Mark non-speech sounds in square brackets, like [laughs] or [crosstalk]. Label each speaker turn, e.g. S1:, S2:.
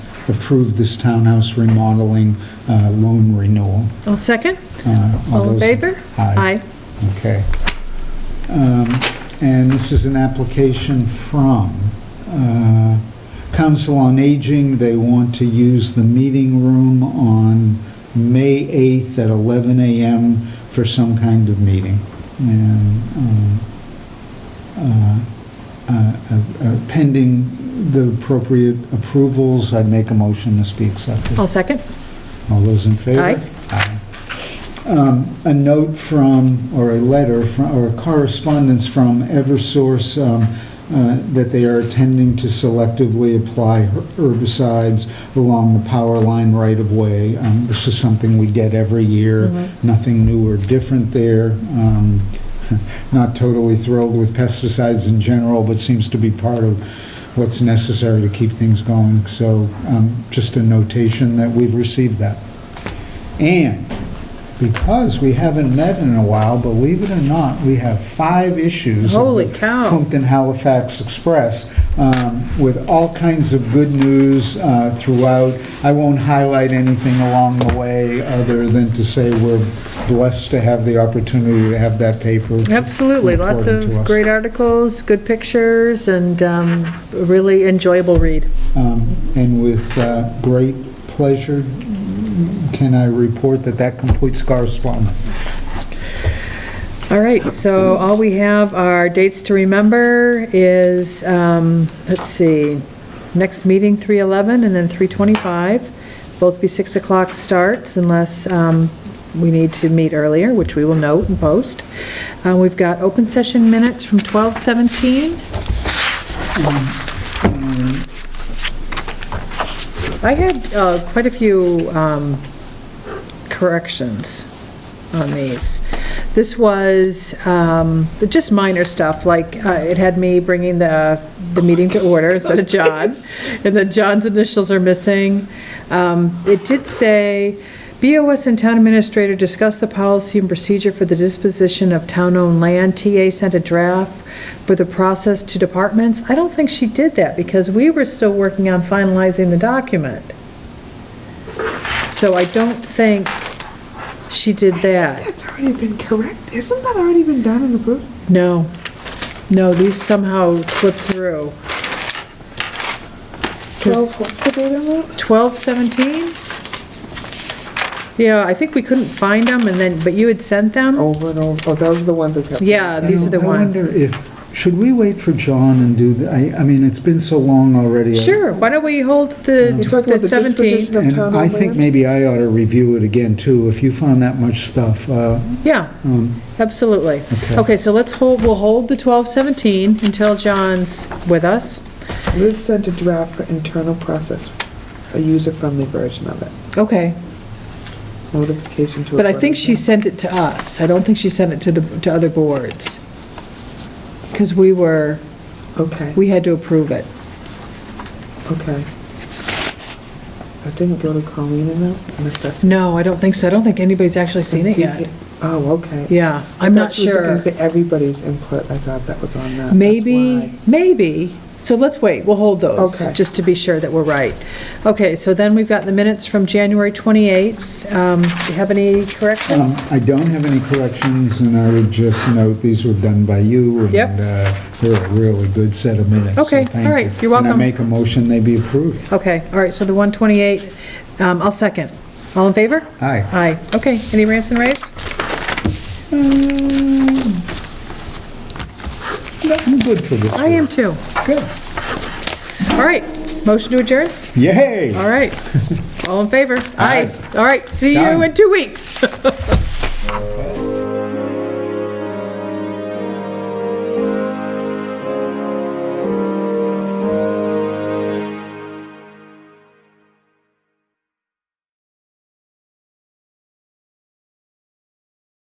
S1: approve this townhouse remodeling uh, loan renewal.
S2: I'll second.
S1: Uh,
S2: All in
S1: those-
S2: favor?
S1: Aye. Okay. Um, And this is an application from uh, Council on Aging. They want to use the meeting room on May 8th at 11 a.m. for some kind of meeting. And um, uh, uh, uh, pending the appropriate approvals, I'd make a motion this be accepted.
S2: I'll second.
S1: All those in favor?
S2: Oh. Aye.
S1: Aye. Um, A note from, or a letter, from or correspondence from Eversource um, uh, that they are attending to selectively apply herbicides along the power line right-of-way. Um, This is something we get every year, nothing new or different there. Um, [laughs] Not totally thrilled with pesticides in general, but seems to be part of what's necessary to keep things going. So um, just a notation that we've received that. And because we haven't met in a while, believe it or not, we have five issues. of
S2: Holy
S1: the
S2: cow.
S1: Plimpton Halifax Express um, with all kinds of good news uh, throughout. I won't highlight anything along the way other than to say we're blessed to have the opportunity to have that paper.
S2: Absolutely, lots
S1: reported to
S2: of
S1: us.
S2: great articles, good pictures, and um, a really enjoyable read.
S1: Um, And with uh, great pleasure, can I report that that completes correspondence?
S2: All right, so all we have are dates to remember is, um, let's see, next meeting, 3:11, and then 3:25. Both be 6 o'clock starts unless um, we need to meet earlier, which we will note and post. Uh, We've got open session minutes from 12:17. I had uh, quite a few um, corrections on these. This was um, just minor stuff, like uh, it had me bringing the, the meeting to order instead of John, and then John's initials are missing. Um, It did say, BOS and town administrator discussed the policy and procedure for the disposition of town-owned land. TA sent a draft for the process to departments. I don't think she did that, because we were still working on finalizing the document. So I don't think she did that.
S3: That's already been correct. Isn't that already been done and approved?
S2: No, no, these somehow slipped through.
S3: 12, what's the date on that?
S2: 1217? Yeah, I think we couldn't find them, and then, but you had sent them?
S3: Over and over, oh, those are the ones that kept.
S2: Yeah, these are the
S1: I
S2: ones.
S1: wonder if, should we wait for John and do, the- I, I mean, it's been so long already.
S2: Sure, why don't we hold
S1: Mm.
S2: the
S3: You're talking about
S2: the
S3: the
S2: 17?
S3: disposition of
S1: And
S3: town
S1: I think
S3: land?
S1: maybe I ought to review it again, too, if you found that much stuff. uh,
S2: Yeah,
S1: um,
S2: absolutely.
S1: Okay.
S2: Okay, so let's hold, we'll hold the 1217 until John's with us.
S3: Liz sent a draft for internal process, a user-friendly version of it,
S2: Okay,
S3: notification to.
S2: but I
S3: abutters.
S2: think she sent it to us. I don't think she sent it to the, to other boards. Because we were,
S3: Okay,
S2: we had to approve it.
S3: okay. That didn't go to Colleen in that, in a second.
S2: No, I don't think so. I don't think anybody's actually seen it yet.
S3: Oh, okay.
S2: Yeah,
S3: I
S2: I'm not
S3: thought she was looking
S2: sure.
S3: for Everybody's input, I thought that was on that. That's
S2: Maybe,
S3: why.
S2: maybe. So let's wait, we'll hold those,
S3: Okay.
S2: just to be sure that we're right. Okay, so then we've got the minutes from January 28th. Um, Do you have any
S1: um,
S2: corrections?
S1: I don't have any corrections, and I would just note, these were done by you.
S2: Yep.
S1: And uh, they're a really good set of minutes. so
S2: Okay,
S1: thank
S2: all right,
S1: you.
S2: you're
S1: And I
S2: welcome.
S1: make a motion they be approved.
S2: Okay, all right, so the 128, um, I'll second. All in favor?
S1: Aye.
S2: Aye. Okay, any rants and raves?
S1: I'm good for this.
S2: I am too.
S1: Good.
S2: All right, motion to adjourn?
S1: Yay!
S2: All right. All in favor? Aye. All right, see you
S1: Done.
S2: in two weeks.